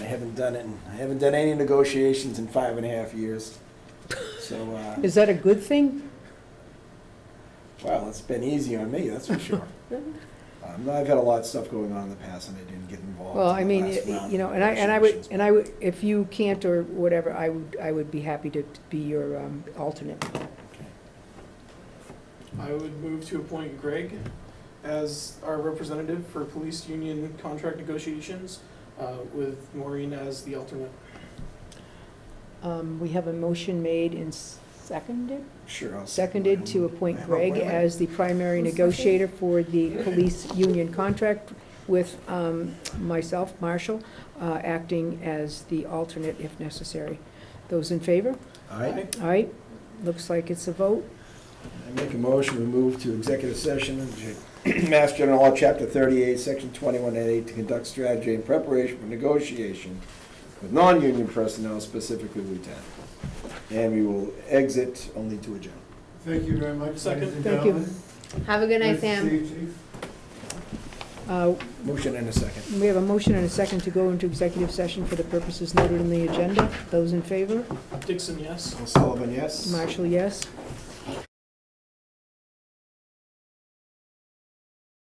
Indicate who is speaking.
Speaker 1: haven't done it, in- I haven't done any negotiations in five and a half years. So, uh,
Speaker 2: Is that a good thing?
Speaker 1: well, it's been easy on me, that's for sure. Um, I've had a lot of stuff going on in the past and I didn't get involved.
Speaker 2: Well,
Speaker 1: in
Speaker 2: I
Speaker 1: the
Speaker 2: mean,
Speaker 1: last
Speaker 2: y-
Speaker 1: round
Speaker 2: you know,
Speaker 1: of
Speaker 2: and I, and I would,
Speaker 1: negotiations.
Speaker 2: and I would, if you can't or whatever, I would, I would be happy to be your um, alternate.
Speaker 1: Okay.
Speaker 3: I would move to appoint Greg as our representative for police union contract negotiations, uh, with Maureen as the alternate.
Speaker 2: Um, We have a motion made and seconded,
Speaker 1: Sure. I'll second
Speaker 2: seconded
Speaker 1: mine.
Speaker 2: to appoint
Speaker 1: Wait,
Speaker 2: Greg
Speaker 1: wait, wait.
Speaker 2: as the primary negotiator for the police union contract with um, myself, Marshall, uh, acting as the alternate if necessary. Those in favor?
Speaker 1: All right,
Speaker 2: All right, looks like it's a vote.
Speaker 1: I make a motion, we move to executive session, under Mass General Law, Chapter 38, Section 21A, to conduct strategy in preparation for negotiation with non-union personnel, specifically lieutenant. And we will exit only to adjourn.
Speaker 4: Thank you very much,
Speaker 3: Second.
Speaker 4: ladies and
Speaker 2: Thank you.
Speaker 4: gentlemen.
Speaker 5: Have a good night,
Speaker 4: Nice to
Speaker 5: Sam.
Speaker 4: see you, chief.
Speaker 2: Uh,
Speaker 1: Motion in a second.
Speaker 2: We have a motion and a second to go into executive session for the purposes noted in the agenda. Those in favor?
Speaker 3: Dixon, yes?
Speaker 1: Sullivan, yes?
Speaker 2: Marshall, yes.